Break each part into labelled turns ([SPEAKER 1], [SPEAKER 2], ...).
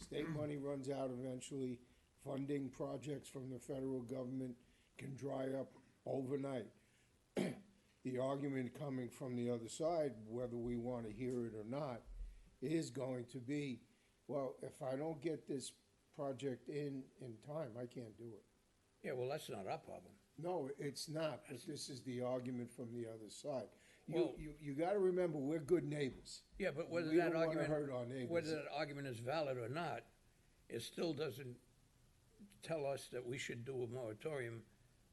[SPEAKER 1] State money runs out eventually. Funding projects from the federal government can dry up overnight. The argument coming from the other side, whether we want to hear it or not, is going to be, well, if I don't get this project in, in time, I can't do it.
[SPEAKER 2] Yeah, well, that's not our problem.
[SPEAKER 1] No, it's not, but this is the argument from the other side. You,
[SPEAKER 2] Well-
[SPEAKER 1] you, you gotta remember, we're good neighbors.
[SPEAKER 2] Yeah, but whether
[SPEAKER 1] We
[SPEAKER 2] that
[SPEAKER 1] don't wanna
[SPEAKER 2] argument,
[SPEAKER 1] hurt our neighbors.
[SPEAKER 2] whether that argument is valid or not, it still doesn't tell us that we should do a moratorium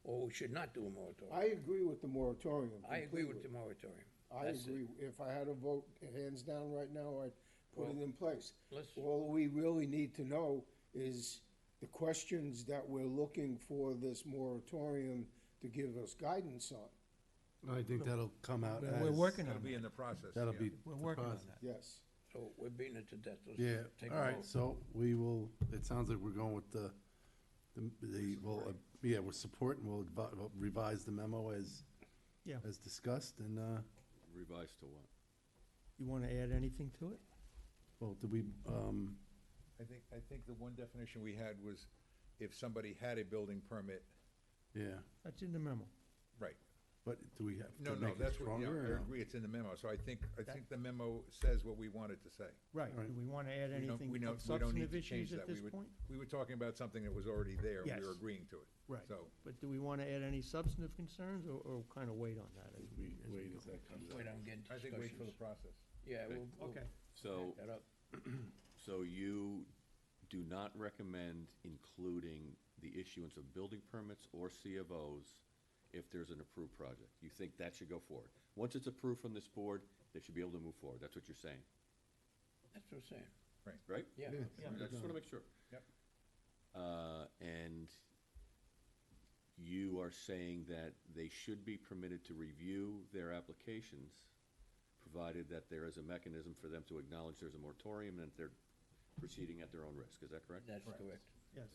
[SPEAKER 2] or we should not do a moratorium.
[SPEAKER 1] I agree with the moratorium
[SPEAKER 2] I agree with the
[SPEAKER 1] completely.
[SPEAKER 2] moratorium.
[SPEAKER 1] I
[SPEAKER 2] That's it.
[SPEAKER 1] agree, if I had a vote, hands down right now, I'd put it in place.
[SPEAKER 2] let's-
[SPEAKER 1] All we really need to know is the questions that we're looking for this moratorium to give us guidance on,
[SPEAKER 3] I think that'll come out
[SPEAKER 4] We're-
[SPEAKER 3] as.
[SPEAKER 4] We're working
[SPEAKER 5] That'll
[SPEAKER 4] on
[SPEAKER 5] be
[SPEAKER 4] that.
[SPEAKER 5] in the process.
[SPEAKER 3] That'll
[SPEAKER 5] yeah.
[SPEAKER 3] be.
[SPEAKER 4] We're working on
[SPEAKER 3] deposit.
[SPEAKER 4] that.
[SPEAKER 1] yes.
[SPEAKER 2] So we're beating it to death. Let's
[SPEAKER 3] Yeah,
[SPEAKER 2] take a
[SPEAKER 3] all right,
[SPEAKER 2] vote.
[SPEAKER 3] so we will, it sounds like we're going with the, the- the, well, uh, yeah, we're supporting, we'll advi- we'll revise the memo as,
[SPEAKER 4] Yeah.
[SPEAKER 3] as discussed, and, uh,
[SPEAKER 6] Revised to what?
[SPEAKER 4] You want to add anything to it?
[SPEAKER 3] well, do we, um,
[SPEAKER 5] I think, I think the one definition we had was if somebody had a building permit,
[SPEAKER 3] yeah,
[SPEAKER 4] That's in the memo.
[SPEAKER 5] right.
[SPEAKER 3] but do we have
[SPEAKER 5] No,
[SPEAKER 3] to
[SPEAKER 5] no,
[SPEAKER 3] make it
[SPEAKER 5] that's what, yeah,
[SPEAKER 3] stronger? or
[SPEAKER 5] I
[SPEAKER 3] no?
[SPEAKER 5] agree, it's in the memo, so I think, I think the memo says what we wanted to say.
[SPEAKER 4] Right.
[SPEAKER 3] All right.
[SPEAKER 4] Do we want to add
[SPEAKER 5] We don't-
[SPEAKER 4] anything
[SPEAKER 5] we
[SPEAKER 4] of
[SPEAKER 5] don't- we don't need
[SPEAKER 4] substantive
[SPEAKER 5] to change
[SPEAKER 4] issues at
[SPEAKER 5] that. We
[SPEAKER 4] this
[SPEAKER 5] would-
[SPEAKER 4] point?
[SPEAKER 5] We were talking about something that was already there, we were
[SPEAKER 4] Yes.
[SPEAKER 5] agreeing to it.
[SPEAKER 4] Right.
[SPEAKER 5] So,
[SPEAKER 4] But do we want to add any substantive concerns or, or kind of wait on that? as we-
[SPEAKER 3] We- Wait, as that comes up.
[SPEAKER 2] Wait, I'm getting
[SPEAKER 5] I think wait for the
[SPEAKER 2] discussions.
[SPEAKER 5] process.
[SPEAKER 2] Yeah, we'll, we'll
[SPEAKER 4] Okay.
[SPEAKER 2] back
[SPEAKER 6] So,
[SPEAKER 2] that up.
[SPEAKER 6] so you do not recommend including the issuance of building permits or CFOs if there's an approved project? You think that should go forward? Once it's approved from this board, they should be able to move forward. That's what you're saying,
[SPEAKER 2] That's what I'm saying.
[SPEAKER 6] right?
[SPEAKER 2] Yeah.
[SPEAKER 4] Yeah.
[SPEAKER 6] I just wanna make sure.
[SPEAKER 5] Yep.
[SPEAKER 6] Uh, and you are saying that they should be permitted to review their applications, provided that there is a mechanism for them to acknowledge there's a moratorium and that they're proceeding at their own risk. Is that correct?
[SPEAKER 2] That's correct.
[SPEAKER 4] Yes.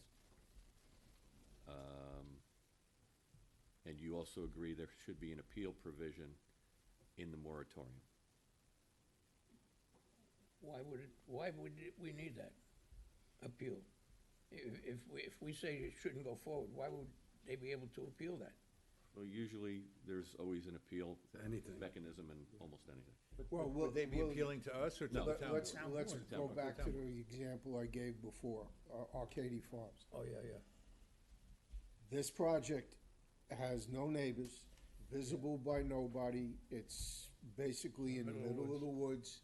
[SPEAKER 6] Um, and you also agree there should be an appeal provision in the moratorium.
[SPEAKER 2] Why would it, why would it- we need that appeal? If, if we, if we say it shouldn't go forward, why would they be able to appeal that?
[SPEAKER 6] Well, usually, there's always an appeal
[SPEAKER 3] Anything.
[SPEAKER 6] mechanism in almost anything.
[SPEAKER 1] Well,
[SPEAKER 5] Would-
[SPEAKER 1] we'll-
[SPEAKER 5] Would they be
[SPEAKER 1] we'll-
[SPEAKER 5] appealing to us or to
[SPEAKER 6] No.
[SPEAKER 5] the
[SPEAKER 1] Let-
[SPEAKER 5] town?
[SPEAKER 1] Let's,
[SPEAKER 5] board?
[SPEAKER 1] let's
[SPEAKER 6] board.
[SPEAKER 1] go
[SPEAKER 6] Town board.
[SPEAKER 1] back to
[SPEAKER 5] Town
[SPEAKER 1] the example I gave before, Ar- Arcady Farms.
[SPEAKER 2] Oh, yeah, yeah.
[SPEAKER 1] This project has no neighbors, visible by nobody, it's basically in the middle of the woods.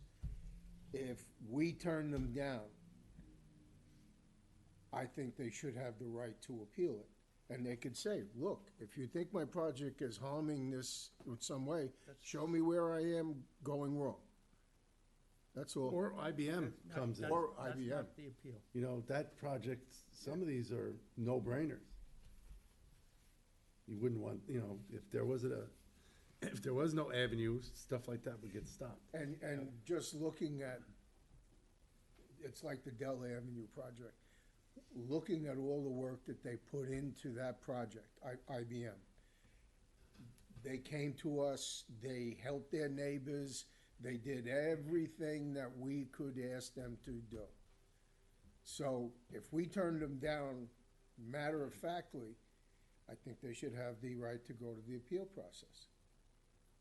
[SPEAKER 1] If we turn them down, I think they should have the right to appeal it. And they could say, look, if you think my project is harming this in some way, show me where I am going wrong. That's all.
[SPEAKER 3] Or IBM comes in,
[SPEAKER 1] Or
[SPEAKER 4] That's
[SPEAKER 1] IBM.
[SPEAKER 4] not the appeal.
[SPEAKER 3] you know, that project, some of these are no-brainers. You wouldn't want, you know, if there wasn't a, if there was no avenues, stuff like that would get stopped.
[SPEAKER 1] And, and just looking at, it's like the Dell Avenue project, looking at all the work that they put into that project, I, IBM. They came to us, they helped their neighbors, they did everything that we could ask them to do. So if we turned them down matter of factly, I think they should have the right to go to the appeal process.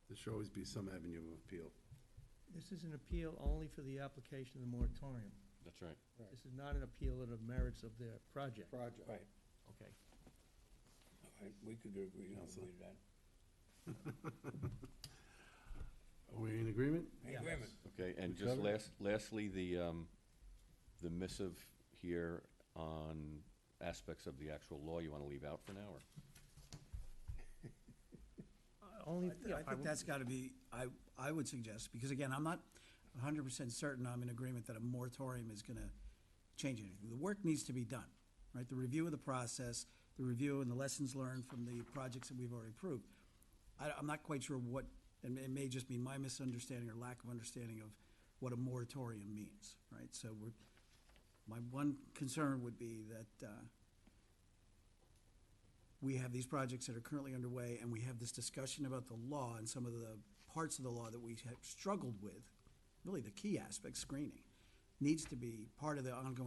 [SPEAKER 3] There should always be some avenue of appeal.
[SPEAKER 4] This is an appeal only for the application of the moratorium.
[SPEAKER 6] That's right.
[SPEAKER 4] This is not an appeal of the merits of their project.
[SPEAKER 1] Project.
[SPEAKER 2] Right,
[SPEAKER 4] Okay.
[SPEAKER 2] all right, we could agree on with that.
[SPEAKER 3] Are we in agreement?
[SPEAKER 4] Yeah.
[SPEAKER 2] Agreement.
[SPEAKER 6] Okay, and just
[SPEAKER 3] covered it.
[SPEAKER 6] last, lastly, the, um, the missive here on aspects of the actual law you wanna leave out for now, or?
[SPEAKER 4] Only,
[SPEAKER 7] I think that's got to be, I, I would suggest, because again, I'm not hundred percent certain I'm in agreement that a moratorium is gonna change anything. The work needs to be done, right? The review of the process, the review and the lessons learned from the projects that we've already approved. I, I'm not quite sure what, and it may just be my misunderstanding or lack of understanding of what a moratorium means, right? So we're, my one concern would be that, uh, we have these projects that are currently underway, and we have this discussion about the law and some of the parts of the law that we have struggled with, really the key aspect, screening, needs to be part of the ongoing